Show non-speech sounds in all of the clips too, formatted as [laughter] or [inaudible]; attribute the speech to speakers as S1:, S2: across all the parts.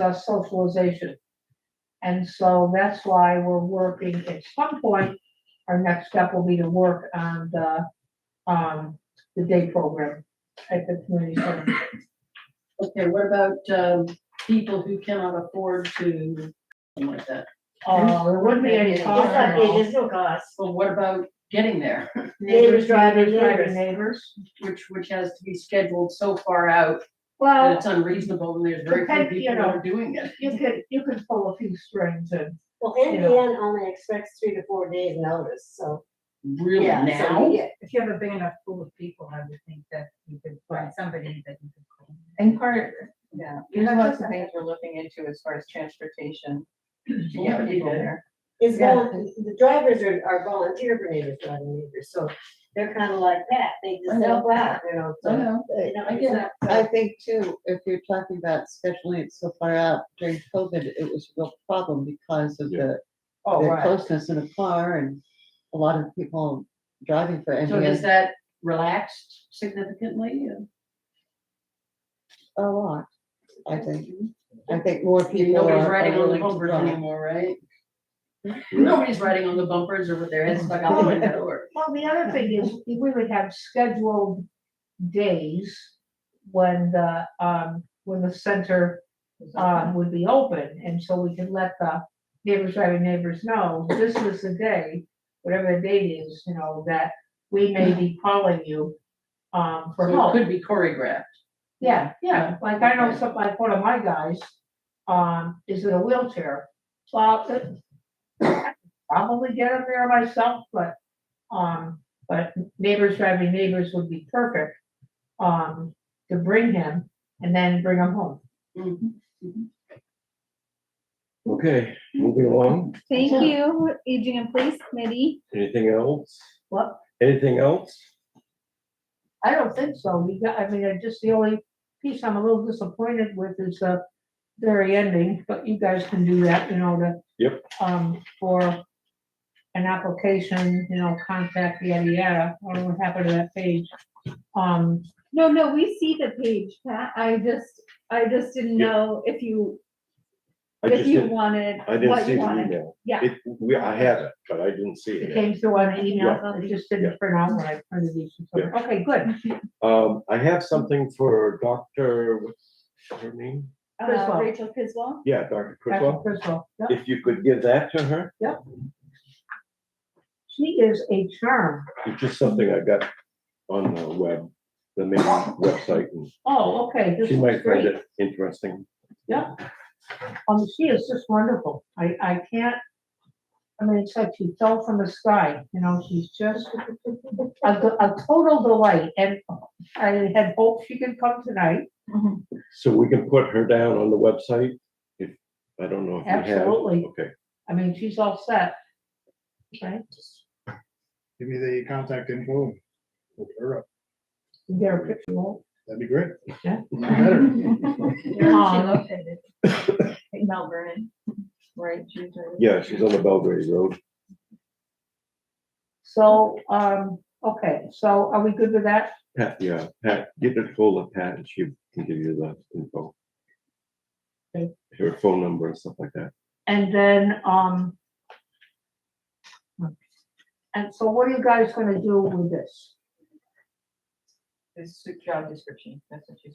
S1: uh, socialization. And so that's why we're working, at some point, our next step will be to work on the, um, the day program at the community center.
S2: Okay, what about, um, people who cannot afford to, something like that?
S1: Uh, there wouldn't be any
S3: It's
S1: cost
S3: not-
S1: at all.
S3: There's no cost.
S2: Well, what about getting there, [laughs]
S3: Neighbors driving neighbors.
S1: Neighbors.
S2: which, which has to be scheduled so far out that
S1: Well,
S2: it's unreasonable and there's very
S1: Depend-
S2: few
S1: you
S2: people who are doing it.
S1: you could, you could pull a few strings and
S3: Well, NPN
S1: Yeah.
S3: only expects three to four days notice, so.
S2: Really
S3: yeah, so
S2: now?
S3: yeah,
S4: If you have a big enough pool of people, I would think that you could find somebody that you could call.
S5: And part, yeah,
S4: You're not
S5: there's lots of
S4: just-
S5: things we're looking into as far as transportation. to
S2: Yeah,
S5: get
S2: you
S5: people
S2: did.
S5: there.
S3: It's
S5: Yeah.
S3: volun the drivers are, are volunteer for neighbors driving neighbors, so they're kind of like that, they
S5: I
S3: just
S5: know.
S3: help out, you know,
S5: I
S3: so.
S5: know.
S3: you know,
S5: I
S3: it's
S5: get it.
S3: not-
S6: I think too, if you're talking about scheduling it so far out during COVID, it was a real problem because of the,
S5: Oh,
S6: the
S5: right.
S6: closeness in a car and a lot of people driving for
S2: So has
S6: NBN
S2: that relaxed significantly?
S6: a lot. I think, I think more people
S2: Mm-hmm. Nobody's
S6: are
S2: riding
S6: are
S2: on the
S6: willing to
S2: bumpers
S6: drive.
S2: anymore, right?
S7: Right.
S2: Nobody's riding on the bumpers or with their heads stuck out the window or.
S1: Well, the other thing is, we would have scheduled days when the, um, when the center,
S6: Uh,
S1: um, would be open, and so we could let the neighbors, driving neighbors know, this is the day, whatever the date is, you know, that we may be calling you, um, for
S2: So it
S1: help.
S2: could be choreographed.
S1: Yeah, yeah, like I know
S2: Okay.
S1: some, like one of my guys, um, is in a wheelchair, well, it- probably get him there myself, but, um, but neighbors driving neighbors would be perfect, um, to bring him and then bring him home.
S6: mm,
S2: Mhm.
S7: Okay, moving along,
S8: Thank you, Aging in Place Committee.
S7: anything else?
S1: What?
S7: Anything else?
S1: I don't think so, we got, I mean, I just, the only piece I'm a little disappointed with is the very ending, but you guys can do that, you know, to.
S7: Yep.
S1: Um, for an application, you know, contact yada yada, I don't know what happened to that page. Um,
S8: No, no, we see the page, Pat. I just, I just didn't
S7: Yeah.
S8: know if you,
S7: I
S8: if
S7: just
S8: you
S7: didn't,
S8: wanted,
S7: I didn't
S8: what
S7: see
S8: you
S7: the
S8: wanted.
S7: email.
S8: Yeah.
S7: It, we, I have it, but I didn't see
S1: it
S7: it.
S1: came through on the email,
S8: Yeah.
S1: it just didn't print out when I printed these, and so- okay, good,
S7: Um, I have something for Dr., what's her name?
S8: Uh,
S1: Criswell.
S8: Rachel Criswell?
S7: Yeah, Dr.
S1: Dr.
S7: Criswell,
S1: Crystal, yep.
S7: if you could give that to her,
S1: she is a charm,
S7: it's just something I got on the web, the main website, and
S1: oh, okay, this
S7: she
S1: is
S7: might find
S1: great.
S7: it interesting.
S1: Um, she is just wonderful. I, I can't, I mean, it's like she fell from the sky, you know, she's just a, a total delight. And I had hoped she could come tonight.
S7: So we can put her down on the website, if, I don't know if you have.
S1: Absolutely.
S7: Okay,
S1: I mean, she's all set. Right?
S9: give me the contact info. Look her up.
S1: You Get her picture. won't
S9: That'd be great.
S1: Yeah.
S9: Even
S8: [laughs]
S9: Better.
S1: you?
S5: Yeah,
S1: Um,
S5: she located. in Mount Vernon, right? she's right.
S7: yeah, she's on the Belgrade Road.
S1: So, um, okay, so are we good with that?
S7: Pat, yeah, Pat, get a hold of Pat and she can give you the info.
S1: Okay.
S7: Her phone number and stuff like that.
S1: And then, um, and so what are you guys gonna do with this?
S5: This job description, that's what she's.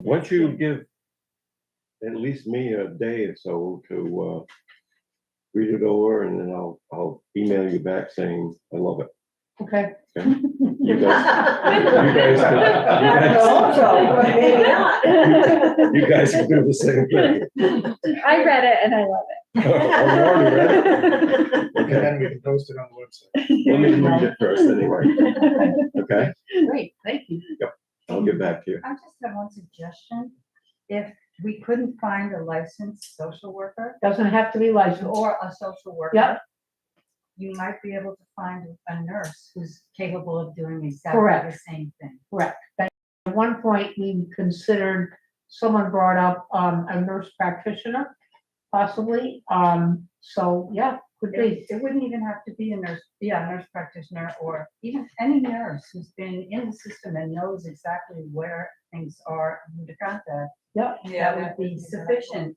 S7: Once you give at least me a day or so to uh read it over and then I'll, I'll email you back saying, I love it.
S1: Okay,
S7: You
S8: [laughs]
S7: guys,
S3: [laughs]
S7: you guys can-
S3: So, maybe
S7: [laughs]
S3: not.
S7: you guys- you guys can do the same thing.
S8: [laughs] I read it and I love
S7: I'm
S8: [laughs]
S7: already ready.
S9: And
S7: Okay,
S9: then we can post it on the website.
S7: let me read it first
S1: [laughs]
S7: anyway,
S8: it.
S7: okay?
S1: great, thank you.
S7: I'll get back to you.
S5: I just have one suggestion. If we couldn't find a licensed social worker
S1: Doesn't have to be licensed.
S5: or a social worker.
S1: Yep.
S5: You might be able to find a nurse who's capable of doing exactly
S1: Correct.
S5: the same thing.
S1: At one point, we considered, someone brought up, um, a nurse practitioner, possibly, um, so, yeah, could
S5: It
S1: be.
S5: it wouldn't even have to be a nurse, yeah, a nurse practitioner or even any nurse who's been in the system and knows exactly where things are, who to contact.
S10: Yep.
S11: Yeah,
S2: that would
S11: that
S2: be
S11: would be
S2: sufficient.